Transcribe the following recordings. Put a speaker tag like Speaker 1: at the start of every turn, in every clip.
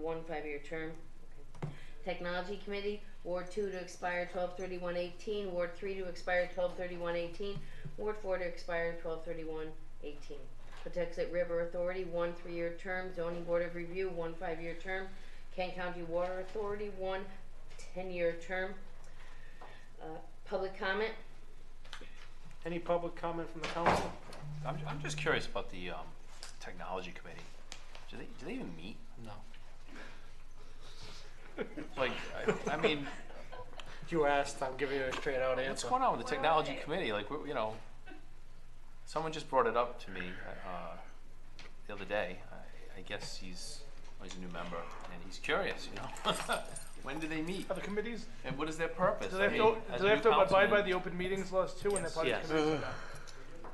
Speaker 1: one five-year term. Okay. Technology Committee, Ward two to expire twelve thirty-one eighteen, Ward three to expire twelve thirty-one eighteen, Ward four to expire twelve thirty-one eighteen. Patuxent River Authority, one three-year term, Zoning Board of Review, one five-year term, Kent County Water Authority, one ten-year term. Uh, Public comment?
Speaker 2: Any public comment from the council?
Speaker 3: I'm, I'm just curious about the um, technology committee. Do they, do they even meet? No. Like, I, I mean,
Speaker 2: You asked, I'm giving you a straight out
Speaker 3: what's
Speaker 2: answer.
Speaker 3: going on with the
Speaker 4: Where are
Speaker 3: technology
Speaker 4: they?
Speaker 3: committee? Like, we- you know, someone just brought it up to me uh, the other day. I, I guess he's, well, he's a new member and he's curious, you know? When do they meet?
Speaker 5: Are the committees,
Speaker 3: And what is their purpose?
Speaker 5: do they have
Speaker 3: I
Speaker 5: to,
Speaker 3: mean, as
Speaker 5: do
Speaker 3: a
Speaker 5: they have
Speaker 3: new
Speaker 5: to abide by
Speaker 3: councilman-
Speaker 5: the open meetings laws too when they're part of
Speaker 2: Yes.
Speaker 5: the committees?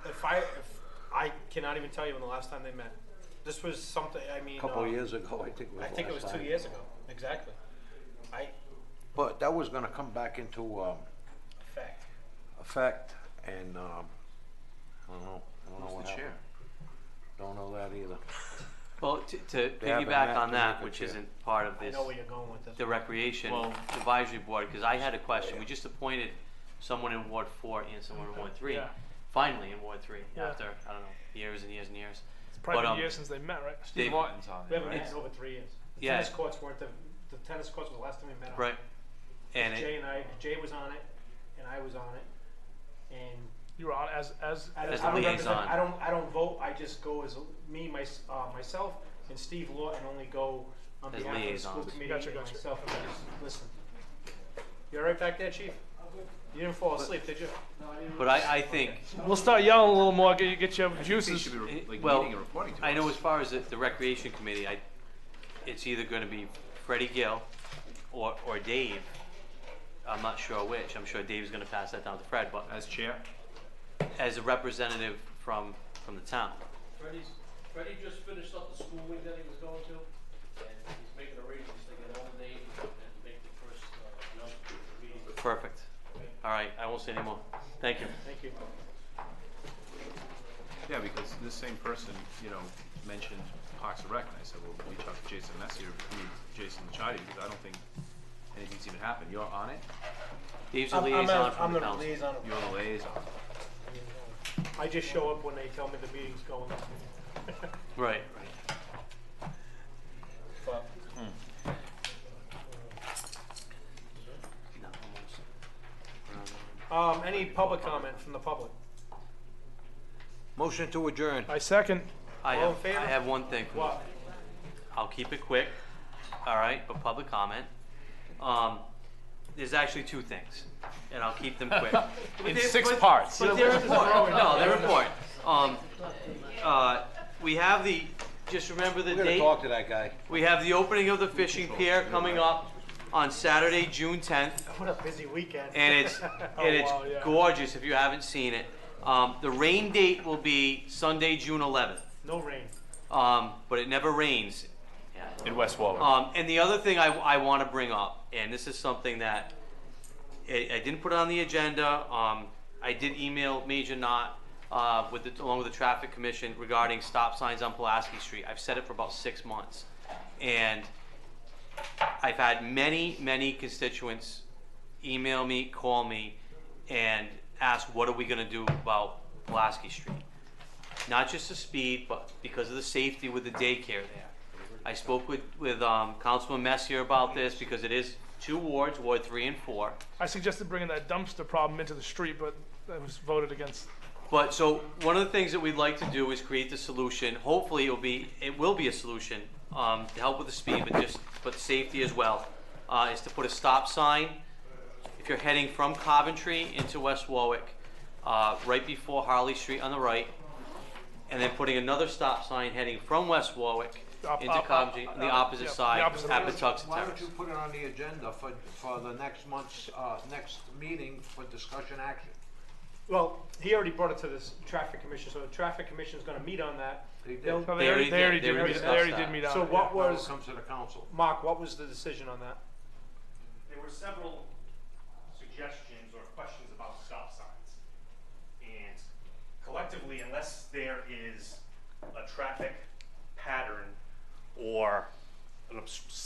Speaker 6: If I, if I cannot even tell you when the last time they met. This was something, I mean.
Speaker 7: Couple
Speaker 6: uh,
Speaker 7: of years ago, I think it was
Speaker 6: I think it
Speaker 7: last
Speaker 6: was two
Speaker 7: time.
Speaker 6: years ago, exactly. I,
Speaker 7: But that was gonna come back into, um,
Speaker 6: fact,
Speaker 7: effect and, um, I don't know, I don't know
Speaker 3: Who's
Speaker 7: what
Speaker 3: the chair?
Speaker 7: happened. Don't know that either.
Speaker 8: Well, to, to
Speaker 7: haven't met
Speaker 8: piggyback on
Speaker 7: to
Speaker 8: that,
Speaker 7: make a
Speaker 8: which
Speaker 7: chair.
Speaker 8: isn't part of
Speaker 6: I
Speaker 8: this,
Speaker 6: know where you're going with this.
Speaker 8: the recreation
Speaker 3: Well-
Speaker 8: advisory board, because I had a question, we just appointed someone in Ward four and someone in Ward three,
Speaker 5: Yeah.
Speaker 8: finally in Ward three,
Speaker 5: Yeah.
Speaker 8: after, I don't know, years and years and years.
Speaker 5: It's
Speaker 8: But,
Speaker 5: probably been
Speaker 8: um,
Speaker 5: years since they met, right?
Speaker 3: Steve
Speaker 8: They-
Speaker 3: Martin's on
Speaker 6: We
Speaker 3: it,
Speaker 6: haven't
Speaker 3: right?
Speaker 6: met in over three years. The
Speaker 8: Yeah.
Speaker 6: Tennis courts weren't the, the tennis courts was the last time we met.
Speaker 8: Right, and
Speaker 6: Jay
Speaker 8: it,
Speaker 6: and I, Jay was on it, and I was on it, and
Speaker 5: You were on as, as,
Speaker 6: I don't,
Speaker 8: As
Speaker 6: I don't
Speaker 8: the
Speaker 6: represent,
Speaker 8: liaison.
Speaker 6: I don't, I don't vote, I just go as a- me, my, uh, myself and Steve Law and only go on
Speaker 8: As
Speaker 6: behalf of the school
Speaker 8: liaisons.
Speaker 6: committee
Speaker 5: Gotcha,
Speaker 6: and
Speaker 5: gotcha.
Speaker 6: myself, and I just listen. You all right back there, chief? You didn't fall asleep, did you?
Speaker 8: but I, I think,
Speaker 5: we'll start yelling a little more, get you, get your
Speaker 3: I think he
Speaker 5: juices.
Speaker 3: should be like
Speaker 8: Well,
Speaker 3: meeting and reporting to
Speaker 8: I know
Speaker 3: us.
Speaker 8: as far as the, the recreation committee, I, it's either gonna be Freddie Gill or, or Dave. I'm not sure which, I'm sure Dave's gonna pass that down to Fred, but
Speaker 3: As chair?
Speaker 8: as a representative from, from the town.
Speaker 9: Freddie's, Freddie just finished up the school week that he was going to, and he's making arrangements to get on the date and make the first, uh, announcement at the meeting.
Speaker 8: Perfect. All right, I won't say anymore. Thank you.
Speaker 6: Thank you.
Speaker 3: Yeah, because this same person, you know, mentioned Parks and Rec, and I said, well, reach out to Jason Messier, I mean, Jason Chidi, because I don't think anything's even happened. You're on it,
Speaker 8: Dave's a
Speaker 6: I'm- I'm a-
Speaker 8: liaison
Speaker 6: I'm
Speaker 8: from the
Speaker 6: the
Speaker 8: council.
Speaker 6: liaison.
Speaker 3: you're on the liaison.
Speaker 6: I just show up when they tell me the meeting's going.
Speaker 8: Right.
Speaker 6: But
Speaker 8: No, almost.
Speaker 6: Um, any public comment from the public?
Speaker 7: Motion to adjourn.
Speaker 5: I second.
Speaker 8: I
Speaker 6: All in
Speaker 8: have,
Speaker 6: favor?
Speaker 8: I have one thing.
Speaker 6: What?
Speaker 8: I'll keep it quick, all right, but public comment. Um, there's actually two things, and I'll keep them quick.
Speaker 3: In six parts.
Speaker 8: But they're important. No, they're important. Um, uh, we have the, just remember the
Speaker 7: We're gonna
Speaker 8: date.
Speaker 7: talk to that guy.
Speaker 8: We have the opening of the fishing pier coming up on Saturday, June tenth.
Speaker 6: What a busy weekend. Oh,
Speaker 8: and it's
Speaker 3: Oh,
Speaker 8: and it's
Speaker 5: wow, yeah.
Speaker 8: gorgeous if you haven't seen it. Um, the rain date will be Sunday, June 11th,
Speaker 6: No rain.
Speaker 8: um, but it never rains.
Speaker 3: In West Warwick.
Speaker 8: Um, and the other thing I, I want to bring up, and this is something that I, I didn't put on the agenda. Um, I did email Major Knott uh, with the, along with the Traffic Commission regarding stop signs on Pulaski Street. I've said it for about six months, and I've had many, many constituents email me, call me, and ask, what are we gonna do about Pulaski Street? Not just the speed, but because of the safety with the daycare there. I spoke with, with, um, Councilman Messier about this, because it is two wards, Ward three and four.
Speaker 5: I suggested bringing that dumpster problem into the street, but that was voted against.
Speaker 8: But so one of the things that we'd like to do is create the solution. Hopefully, it'll be it will be a solution um, to help with the speed, but just but safety as well. Uh, is to put a stop sign if you're heading from Coventry into West Warwick, uh, right before Harley Street on the right, and then putting another stop sign heading from West Warwick
Speaker 5: Op-
Speaker 8: into
Speaker 5: op-
Speaker 8: Coventry
Speaker 5: op-
Speaker 8: on the
Speaker 5: op-
Speaker 8: opposite
Speaker 5: Uh, yeah, the
Speaker 8: side
Speaker 5: opposite
Speaker 8: at
Speaker 5: direction.
Speaker 8: Patuxent
Speaker 7: Why don't
Speaker 8: Terrace.
Speaker 7: you put it on the agenda for, for the next month's, uh, next meeting for discussion action?
Speaker 6: Well, he already brought it to this traffic commission, so the traffic commission's gonna meet on that.
Speaker 7: They did.
Speaker 6: They'll-
Speaker 5: No,
Speaker 8: They
Speaker 5: they
Speaker 8: already
Speaker 5: already, they already
Speaker 8: did. They
Speaker 5: did,
Speaker 8: already
Speaker 5: meet- they already
Speaker 8: discussed
Speaker 5: did
Speaker 8: that.
Speaker 5: meet on
Speaker 6: So
Speaker 5: it,
Speaker 6: what
Speaker 5: yeah.
Speaker 7: Well,
Speaker 6: was,
Speaker 7: it comes to the council.
Speaker 6: Mark, what was the decision on that?
Speaker 10: there were several suggestions or questions about stop signs. And collectively, unless there is a traffic pattern or an obs-